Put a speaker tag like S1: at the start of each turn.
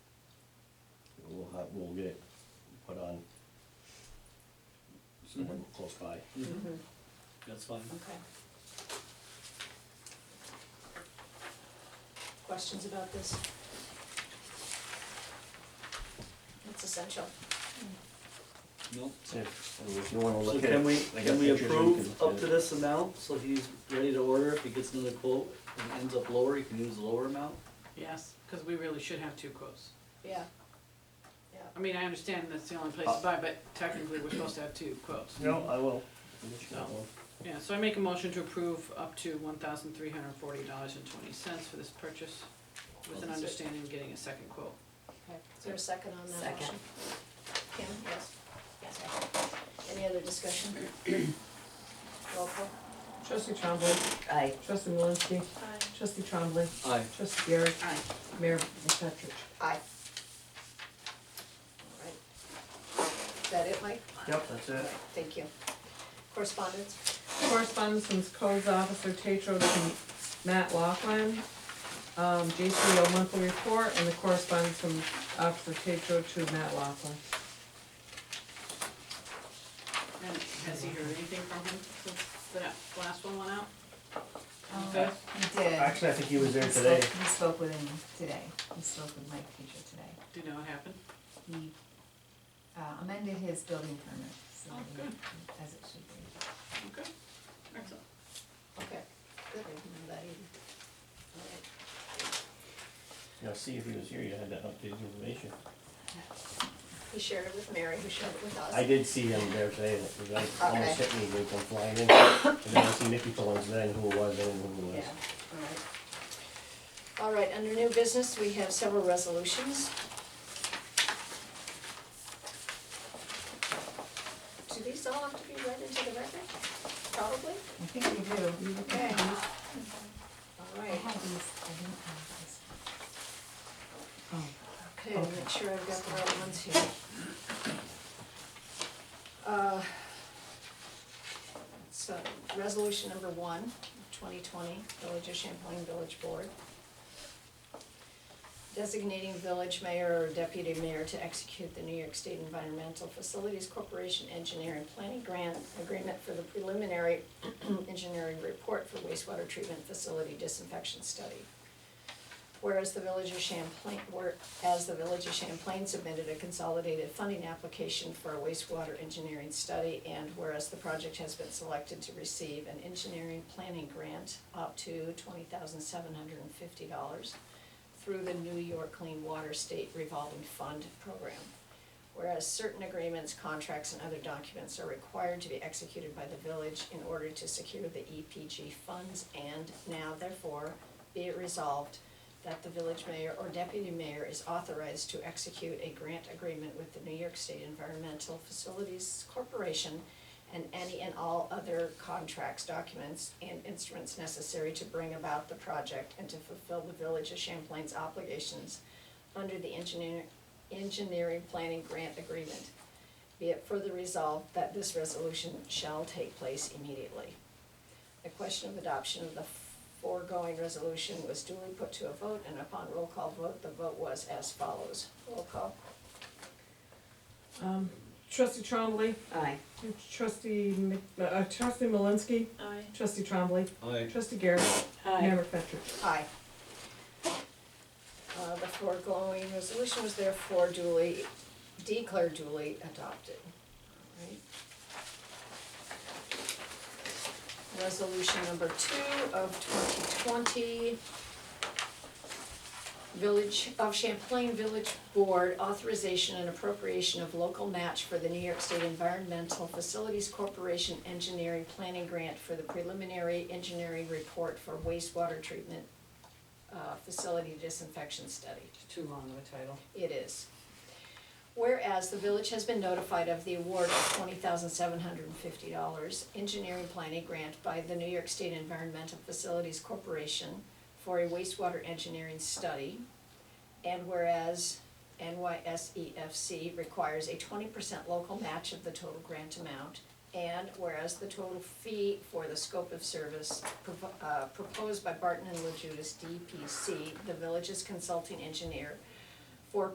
S1: uh, we'll get it put on somewhere close by.
S2: Mhm.
S3: Mm-hmm. That's fine.
S2: Okay. Questions about this? It's essential.
S3: Nope.
S1: If, if you wanna
S3: So
S1: look at.
S3: can we,
S1: it, I got
S3: can we
S1: pictures,
S3: approve
S1: can-
S3: up to this amount, so if he's ready to order, if he gets another quote and ends up lower, he can use the lower amount?
S4: Yes, because we really should have two quotes.
S2: Yeah.
S4: I mean, I understand that's the only place to buy, but technically, we're supposed to have two quotes.
S1: No, I will.
S4: No. Yeah, so I make a motion to approve up to one thousand three hundred and forty dollars and twenty cents for this purchase, with an understanding of getting a second quote.
S2: Okay. Is there a second on that
S5: Second.
S2: motion? Kim, yes? Yes. Any other discussion? Roll call.
S6: Trustee Trombley.
S5: Aye.
S6: Trustee Malinsky. Trustee Trombley.
S3: Aye.
S6: Trustee Garrett.
S4: Aye.
S6: Mayor McFetrich.
S2: Aye. All right. Is that it, Mike?
S1: Yep, that's it.
S2: Thank you. Correspondence?
S6: Correspondence from Codes Officer Tatro to Matt Laughlin. Um, JCO monthly report and the correspondence from Officer Tatro to Matt Laughlin.
S4: And has he heard anything from him since that last one went out?
S5: Um,
S4: Okay.
S5: he did.
S1: Actually, I think he was there
S5: He
S1: today.
S5: spoke- He spoke with him today, he spoke with Mike Fisher today.
S4: Do you know what happened?
S5: He uh, amended his building permit, so
S4: Oh,
S5: that
S4: good.
S5: he- as it should be.
S4: Okay, excellent.
S2: Okay. Good, I didn't know that either. All right.
S1: Yeah, see if he was here, you had that updated information.
S2: He shared it with Mary, who shared it with us.
S1: I did see him there today, and it was like, almost
S2: Okay.
S1: hit me, they come flying in. And then I see Nikki Collins then, who it was, I didn't know who it was.
S2: Yeah, all right. All right, under new business, we have several resolutions. Do these all have to be read into the record? Probably?
S5: I think we do.
S2: Okay. All
S5: I
S2: right,
S5: had these, I didn't have these.
S2: okay, I'll make sure I've got the right ones here. Uh, So, resolution number one, twenty twenty, Village of Champlain Village Board. designating village mayor or deputy mayor to execute the New York State Environmental Facilities Corporation Engineering Planning Grant Agreement for the preliminary engineering report for wastewater treatment facility disinfection study. Whereas the village of Champlain, whereas the village of Champlain submitted a consolidated funding application for a wastewater engineering study, and whereas the project has been selected to receive an engineering planning grant up to twenty thousand seven hundred and fifty dollars through the New York Clean Water State Revolving Fund Program. Whereas certain agreements, contracts, and other documents are required to be executed by the village in order to secure the EPG funds, and now therefore be it resolved that the village mayor or deputy mayor is authorized to execute a grant agreement with the New York State Environmental Facilities Corporation and any and all other contracts, documents, and instruments necessary to bring about the project and to fulfill the Village of Champlain's obligations under the engineer, engineering planning grant agreement. Be it further resolved that this resolution shall take place immediately. The question of adoption of the foregoing resolution was duly put to a vote, and upon roll call vote, the vote was as follows. Roll call.
S6: Um, Trustee Trombley.
S5: Aye.
S6: Trustee, Mc- uh, Trustee Malinsky.
S2: Aye.
S6: Trustee Trombley.
S3: Aye.
S6: Trustee Garrett. Mayor McFetrich.
S2: Aye. Uh, the foregoing resolution was therefore duly, declared duly adopted. All right. Resolution number two of twenty twenty. Village of Champlain Village Board authorization and appropriation of local match for the New York State Environmental Facilities Corporation Engineering Planning Grant for the preliminary engineering report for wastewater treatment uh, facility disinfection study.
S4: Too long of a title.
S2: It is. Whereas the village has been notified of the award of twenty thousand seven hundred and fifty dollars engineering planning grant by the New York State Environmental Facilities Corporation for a wastewater engineering study. And whereas NYSEFC E requires a twenty percent local match of the total grant amount. And whereas the total fee for the scope of service propo- uh, proposed by Barton and Lejudis DPC, the village's consulting engineer,